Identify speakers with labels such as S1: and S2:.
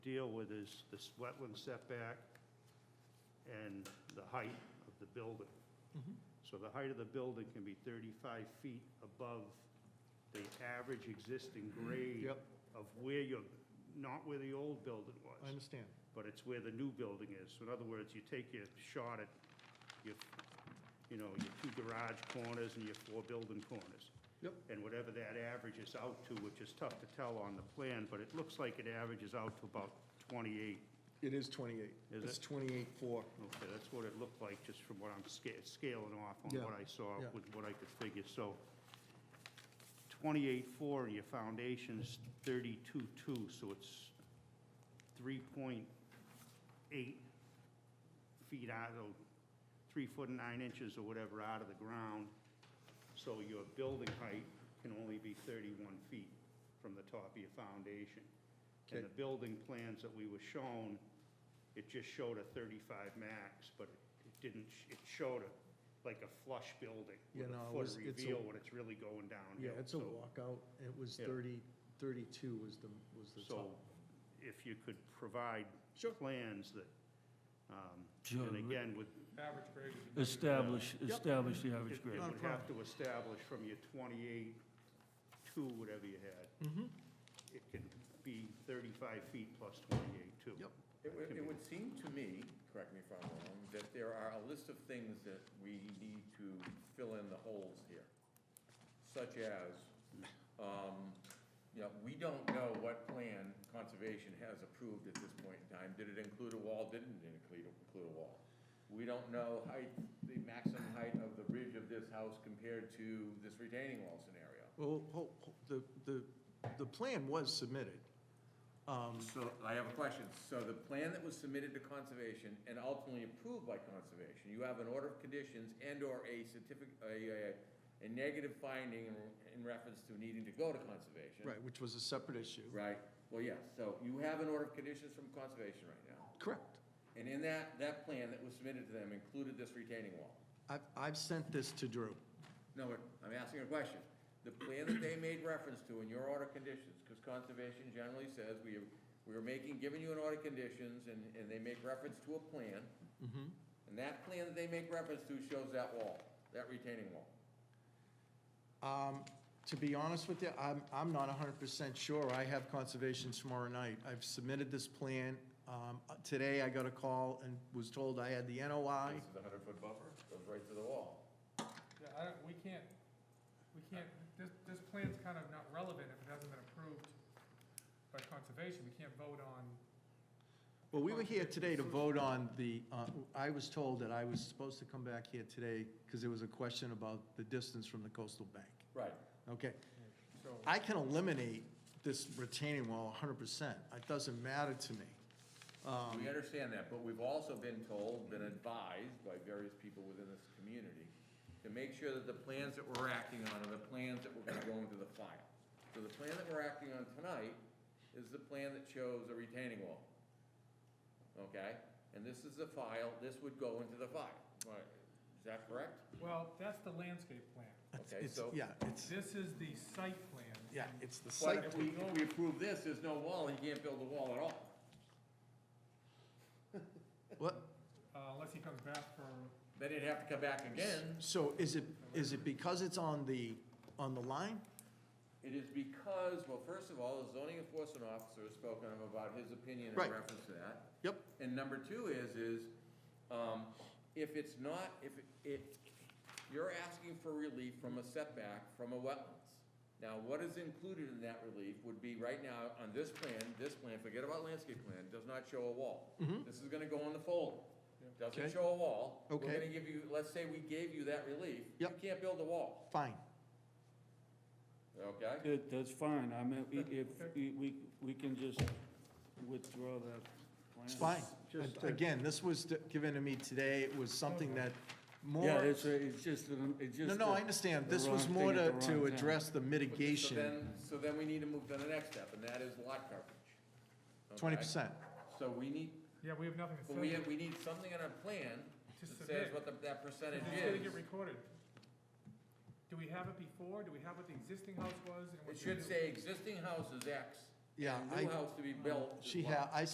S1: deal with is this wetland setback and the height of the building.
S2: Mm-hmm.
S1: So the height of the building can be 35 feet above the average existing grade
S2: Yep.
S1: of where you're, not where the old building
S2: I
S1: was,
S2: understand.
S1: but it's where the new building is. So in other words, you take your shot at your, you know, your two garage corners and your four building corners.
S2: Yep.
S1: And whatever that averages out to, which is tough to tell on the plan, but it looks like it averages out to about 28.
S2: It is 28.
S1: Is
S2: It's
S1: it?
S2: 28.4.
S1: Okay, that's what it looked like, just from what I'm sca- scaling off on
S2: Yeah,
S1: what I saw
S2: yeah.
S1: with what I could figure, so twenty-eight four, and your foundation's thirty-two two, so it's three point eight feet out of, three foot and nine inches or whatever out of the ground, so your building height can only be thirty-one feet from the top of your foundation. And the
S2: Okay.
S1: building plans that we were shown, it just showed a thirty-five max, but it- it didn't, sh- it showed a, like a flush building
S2: Yeah,
S1: with a
S2: no, it
S1: foot
S2: was- it's a-
S1: reveal when it's really going downhill.
S2: Yeah, it's a
S1: So-
S2: walkout. It was
S1: Yeah.
S2: 30, 32 was the, was the
S1: So
S2: top.
S1: if you could provide
S2: Sure.
S1: plans that, um,
S3: Sure.
S1: and again, with
S4: Average grade would be.
S3: Establish, establish the average
S1: It it
S3: grade.
S2: Not a
S1: would have to establish from your 28 to whatever you had. It can be 35 feet plus 28 too.
S2: Yep.
S5: It would, it would seem to me, correct me if I'm wrong, that there are a list of things that we need to fill in the holes here. Such as, um, you know, we don't know what plan conservation has approved at this point in time. Did it include a wall, didn't it include, include a wall? We don't know height, the maximum height of the ridge of this house compared to this retaining wall scenario.
S2: Well, ho- ho- the, the, the plan was submitted. Um,
S5: So I have a question. So the plan that was submitted to conservation and ultimately approved by conservation, you have an order of conditions and/or a certificate, a, a, a negative finding in- in reference to needing to go to conservation.
S2: Right, which was a separate issue.
S5: Right? Well, yes. So you have an order of conditions from conservation right now.
S2: Correct.
S5: And in that, that plan that was submitted to them included this retaining wall.
S2: I've, I've sent this to Drew.
S5: No, but I'm asking a question. The plan that they made reference to in your order conditions, because conservation generally says we, we are making, giving you an order conditions, and, and they make reference to a plan. And that plan that they make reference to shows that wall, that retaining wall.
S2: Um, To be honest with you, I'm, I'm not hundred percent sure. I have conservation tomorrow night. I've submitted this plan. Um, Today, I got a call and was told I had the NOI.
S5: This is a hundred-foot buffer, goes right to the wall.
S4: Yeah, I don't, we can't, we can't, this, this plan's kind of not relevant if it hasn't been approved by conservation. We can't vote on,
S2: Well, we were here today to vote on the, uh, I was told that I was supposed to come back here today because there was a question about the distance from the coastal bank.
S5: Right.
S2: Okay,
S4: so,
S2: I can eliminate this retaining wall hundred percent. It doesn't matter to me. Um,
S5: We understand that, but we've also been told, been advised by various people within this community to make sure that the plans that we're acting on are the plans that we're gonna go into the file. So the plan that we're acting on tonight is the plan that shows a retaining wall. Okay? And this is the file, this would go into the file. Right. Is that correct?
S4: well, that's the landscape plan.
S2: It's-
S5: Okay,
S2: it's-
S5: so-
S2: Yeah, it's,
S4: This is the site plan.
S2: yeah, it's the
S5: But
S2: site.
S5: if we, if we approve this, there's no wall, he can't build a wall at all.
S2: What?
S4: Uh, unless he comes back for,
S5: Then he'd have to come back again.
S2: So is it, is it because it's on the, on the line?
S5: It is because, well, first of all, the zoning enforcement officer has spoken about his opinion
S2: Right.
S5: in reference to that.
S2: Yep.
S5: And number two is, is, um, if it's not, if it, you're asking for relief from a setback from a wetlands. Now, what is included in that relief would be right now on this plan, this plan, forget about landscape plan, does not show a wall. This is gonna go on the folder.
S2: Mm-hmm. Okay.
S5: Doesn't show a wall.
S2: Okay.
S5: We're gonna give you, let's say we gave you that relief.
S2: Yep.
S5: You can't build a wall,
S2: Fine.
S5: okay?
S3: That- that's fine, I mean, i- if, we- we, we can just withdraw that plan.
S2: It's fine.
S1: Just to-
S2: Again, this was d- given to me today. It was something that more.
S3: Yeah, it's, a- it's just, an- it's just.
S2: No, no,
S3: a-
S2: I understand.
S3: the
S2: This was
S3: wrong
S2: more
S3: thing at
S2: to,
S3: the
S2: to
S3: wrong time.
S2: address the
S5: Okay, So
S2: mitigation,
S5: then, so then we need to move to the next step, and that is lot coverage. Okay?
S2: twenty percent.
S5: So we need,
S4: yeah, we have nothing to
S5: but we, have-
S4: say.
S5: we need something in our plan
S4: To
S5: that says
S4: submit.
S5: what the- that percentage
S4: It's gonna get
S5: is.
S4: recorded. Do we have it before? Do we have what the existing house was? and what
S5: It
S4: the
S5: should
S4: new-
S5: say existing house is X.
S2: Yeah,
S5: and
S2: I-
S5: New house to be built. is
S2: She
S5: Y.
S2: had, I